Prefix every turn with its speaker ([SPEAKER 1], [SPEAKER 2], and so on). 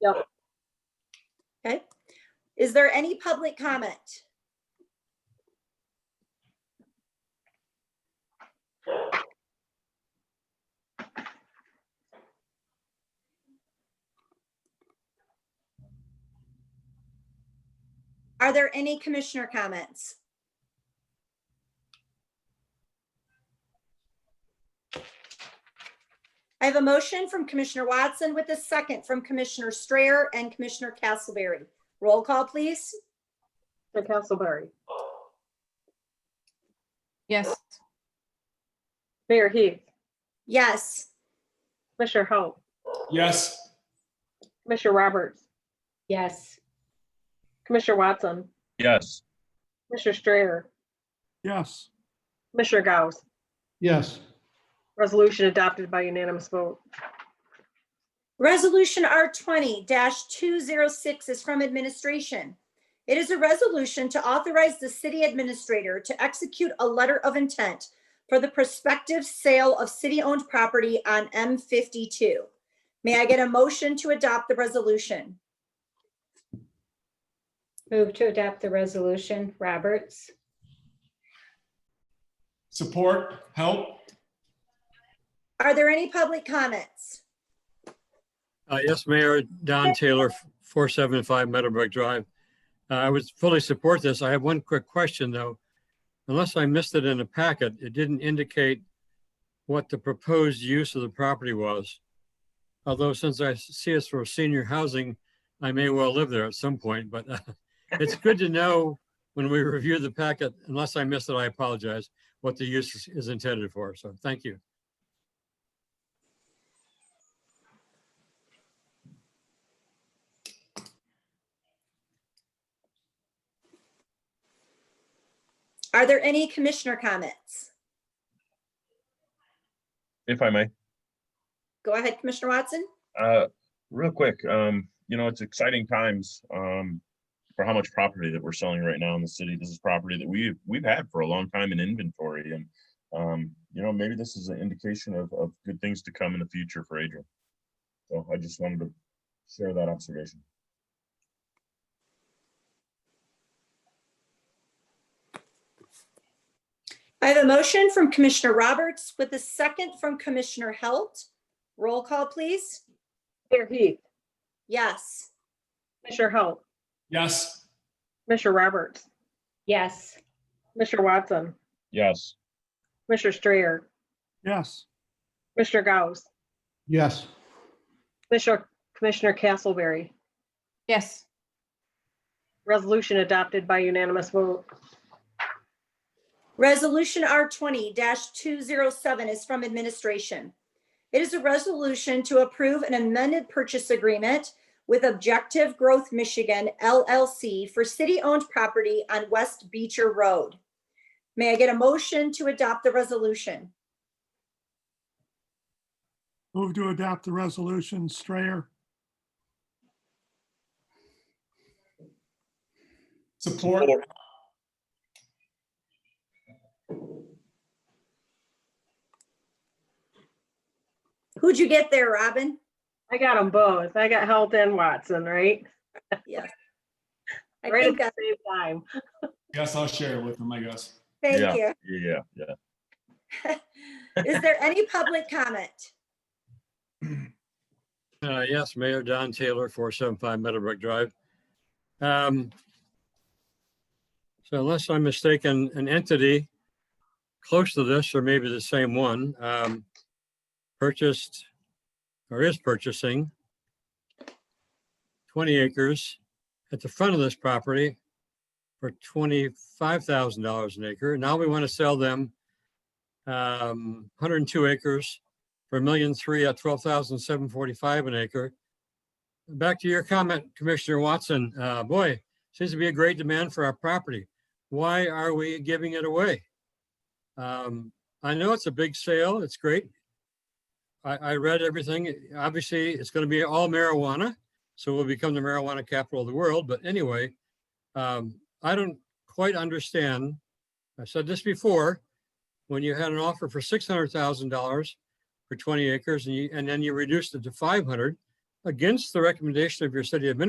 [SPEAKER 1] Yep.
[SPEAKER 2] Okay, is there any public comment? Are there any commissioner comments? I have a motion from Commissioner Watson with a second from Commissioner Strayer and Commissioner Castleberry. Roll call, please.
[SPEAKER 1] Commissioner Castleberry.
[SPEAKER 3] Yes.
[SPEAKER 1] Mayor Heath.
[SPEAKER 2] Yes.
[SPEAKER 1] Commissioner Hou.
[SPEAKER 4] Yes.
[SPEAKER 1] Commissioner Roberts.
[SPEAKER 5] Yes.
[SPEAKER 1] Commissioner Watson.
[SPEAKER 6] Yes.
[SPEAKER 1] Commissioner Strayer.
[SPEAKER 4] Yes.
[SPEAKER 1] Commissioner Gauss.
[SPEAKER 4] Yes.
[SPEAKER 1] Resolution adopted by unanimous vote.
[SPEAKER 2] Resolution R twenty two zero six is from administration. It is a resolution to authorize the city administrator to execute a letter of intent for the prospective sale of city-owned property on M fifty-two. May I get a motion to adopt the resolution?
[SPEAKER 5] Move to adopt the resolution. Roberts?
[SPEAKER 4] Support, help?
[SPEAKER 2] Are there any public comments?
[SPEAKER 7] Uh, Yes, Mayor, Don Taylor, 475 Meadowbrook Drive. Uh, I would fully support this. I have one quick question, though. Unless I missed it in the packet, it didn't indicate what the proposed use of the property was. Although since I see it's for senior housing, I may well live there at some point, but uh, it's good to know when we review the packet, unless I missed it, I apologize, what the use is- is intended for. So thank you.
[SPEAKER 2] Are there any commissioner comments?
[SPEAKER 6] If I may,
[SPEAKER 2] Go ahead, Commissioner Watson.
[SPEAKER 6] uh, real quick, um, you know, it's exciting times, um, for how much property that we're selling right now in the city. This is property that we've, we've had for a long time in inventory and, um, you know, maybe this is an indication of, of good things to come in the future for Adrian. So I just wanted to share that observation.
[SPEAKER 2] I have a motion from Commissioner Roberts with a second from Commissioner Halt. Roll call, please.
[SPEAKER 1] Mayor Heath.
[SPEAKER 2] Yes.
[SPEAKER 1] Commissioner Hou.
[SPEAKER 4] Yes.
[SPEAKER 1] Commissioner Roberts.
[SPEAKER 5] Yes.
[SPEAKER 1] Commissioner Watson.
[SPEAKER 6] Yes.
[SPEAKER 1] Commissioner Strayer.
[SPEAKER 4] Yes.
[SPEAKER 1] Commissioner Gauss.
[SPEAKER 4] Yes.
[SPEAKER 1] Commissioner, Commissioner Castleberry.
[SPEAKER 3] Yes.
[SPEAKER 1] Resolution adopted by unanimous vote.
[SPEAKER 2] Resolution R twenty two zero seven is from administration. It is a resolution to approve an amended purchase agreement with Objective Growth Michigan LLC for city-owned property on West Beecher Road. May I get a motion to adopt the resolution?
[SPEAKER 8] Move to adopt the resolution, Strayer.
[SPEAKER 4] Support,
[SPEAKER 2] Who'd you get there, Robin?
[SPEAKER 1] I got them both. I got Halt and Watson, right?
[SPEAKER 2] I
[SPEAKER 1] Right at
[SPEAKER 2] think,
[SPEAKER 1] the
[SPEAKER 2] I-
[SPEAKER 1] same time.
[SPEAKER 4] yes, I'll share it with them, I guess.
[SPEAKER 2] thank you.
[SPEAKER 6] Yeah, yeah.
[SPEAKER 2] Is there any public comment?
[SPEAKER 7] Uh, yes, Mayor Don Taylor, four seven five Meadowbrook Drive. Um, So unless I'm mistaken, an entity close to this, or maybe the same one, um, purchased or is purchasing twenty acres at the front of this property for twenty-five thousand dollars an acre. Now we want to sell them um, hundred and two acres for a million three at twelve thousand seven forty-five an acre. Back to your comment, Commissioner Watson, uh, boy, seems to be a great demand for our property. Why are we giving it away? Um, I know it's a big sale, it's great. I, I read everything, obviously, it's gonna be all marijuana, so we'll become the marijuana capital of the world, but anyway, um, I don't quite understand. I said this before, when you had an offer for six hundred thousand dollars, for twenty acres and you, and then you reduced it to five hundred. against the recommendation of your city administrator